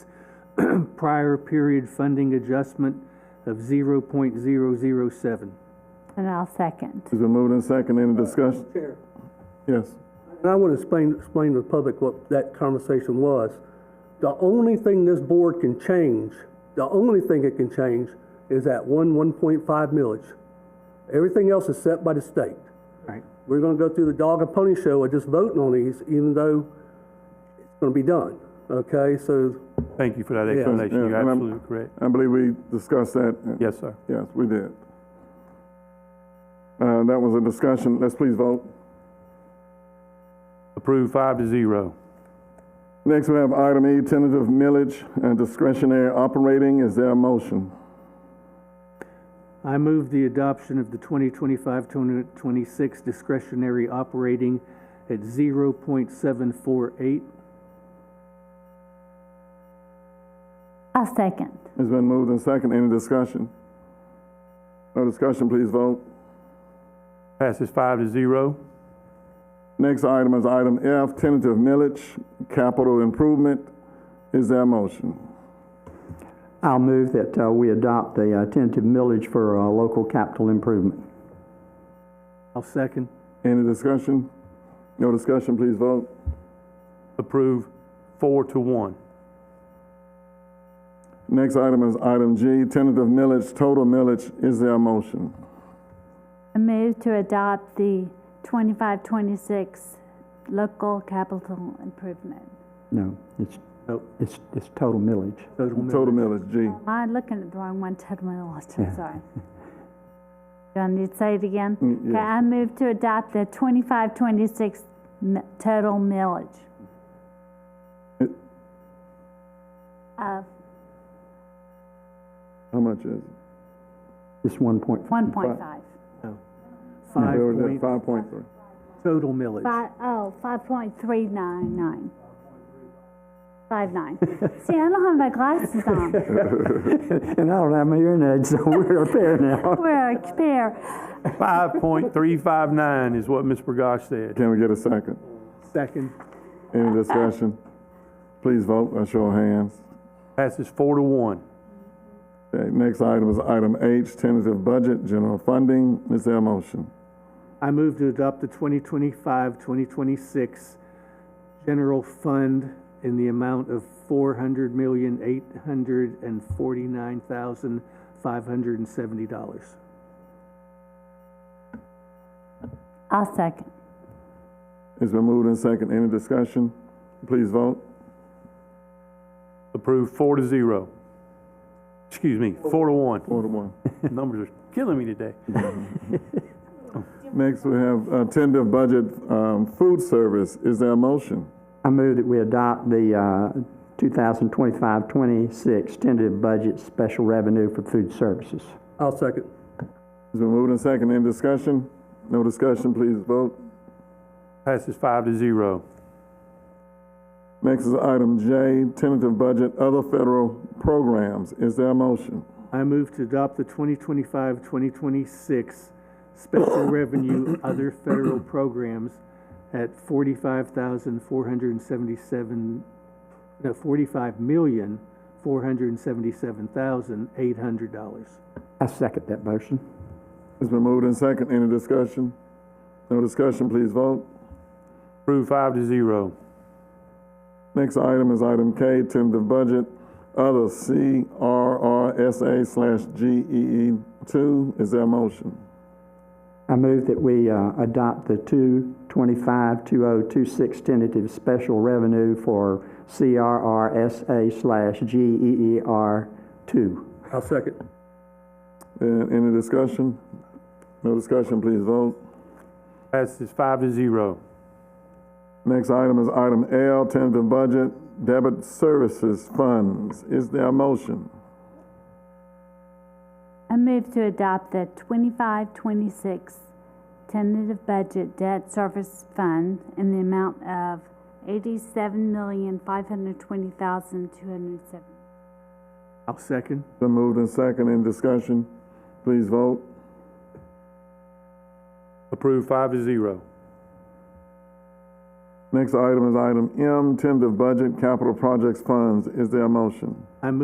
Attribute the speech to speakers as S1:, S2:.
S1: prior period funding adjustment of 0.007.
S2: And I'll second.
S3: It's been moved and seconded.
S4: Uh,
S3: Any discussion?
S5: Chair.
S3: Yes.
S5: And I want to explain, explain to the public what that conversation was. The only thing this board can change, the only thing it can change is that one, one point five millage. Everything else is set by the state.
S1: Right.
S5: We're gonna go through the dog and pony show of just voting on these, even though it's gonna be done, okay? So,
S4: Thank you for that
S5: Yeah.
S4: explanation.
S3: Yeah,
S4: You're
S3: and I'm-
S4: absolutely correct.
S3: I believe we discussed that.
S4: Yes, sir.
S3: Yes, we did. Uh, that was a discussion. Let's please vote.
S4: Approved five to zero.
S3: Next, we have item E, tentative millage and discretionary operating. Is there a motion?
S1: I move the adoption of the 2025-2026 discretionary operating at 0.748.
S2: I'll second.
S3: It's been moved and seconded. Any discussion? No discussion, please vote.
S4: Passes five to zero.
S3: Next item is item F, tentative millage, capital improvement. Is there a motion?
S6: I'll move that uh, we adopt the uh, tentative millage for uh, local capital improvement.
S1: I'll second.
S3: Any discussion? No discussion, please vote.
S4: Approved four to one.
S3: Next item is item G, tentative millage, total millage. Is there a motion?
S2: I move to adopt the 2526 local capital improvement.
S6: No, it's,
S1: Nope.
S6: it's, it's total millage.
S3: Total millage, G.
S2: Am I looking at the wrong one, Ted Willis? I'm sorry. Do I need to say it again? Okay,
S3: yes.
S2: I move to adopt the 2526 mi- total millage
S3: It-
S2: of
S3: How much is it?
S6: It's 1.5.
S2: 1.5.
S1: Five
S3: Where was
S1: point,
S3: that? Five point three.
S1: total millage.
S2: Five, oh, 5.399. 59. See, I don't have my glasses on.
S6: And I don't have my hearing aids, so we're a pair now.
S2: We're a pair.
S4: Five point three five nine is what Ms. Burgash said.
S3: Can we get a second?
S1: Second.
S3: Any discussion? Please vote by show of hands.
S4: Passes four to one.
S3: Okay, next item is item H, tentative budget, general funding. Is there a motion?
S1: I move to adopt the 2025-2026 general fund in the amount of $400,849,570.
S2: I'll second.
S3: It's been moved and second. Any discussion? Please vote.
S4: Approved four to zero. Excuse me, four to one.
S3: Four to one.
S4: Numbers are killing me today.
S3: Next, we have uh, tentative budget, um, food service. Is there a motion?
S6: I move that we adopt the uh, 2025-26 tentative budget special revenue for food services.
S5: I'll second.
S3: It's been moved and second. Any discussion? No discussion, please vote.
S4: Passes five to zero.
S3: Next is item J, tentative budget, other federal programs. Is there a motion?
S1: I move to adopt the 2025-2026 special revenue other federal programs at 45,477, no, 45,477,800 dollars.
S6: I second that motion.
S3: It's been moved and second. Any discussion? No discussion, please vote.
S4: Approved five to zero.
S3: Next item is item K, tentative budget, other CRRSA slash GEE two. Is there a motion?
S6: I move that we uh, adopt the 225-2026 tentative special revenue for CRRSA slash E GEER 2.
S5: I'll second.
S3: And any discussion? No discussion, please vote.
S4: Passes five to zero.
S3: Next item is item L, tentative budget, debit services funds. Is there a motion?
S2: I move to adopt the 2526 tentative budget debt service fund in the amount of 87520270
S1: I'll second.
S3: Been moved and second in discussion. Please vote.
S4: Approved five to zero.
S3: Next item is item M, tentative budget capital projects funds. Is there a motion?
S1: I move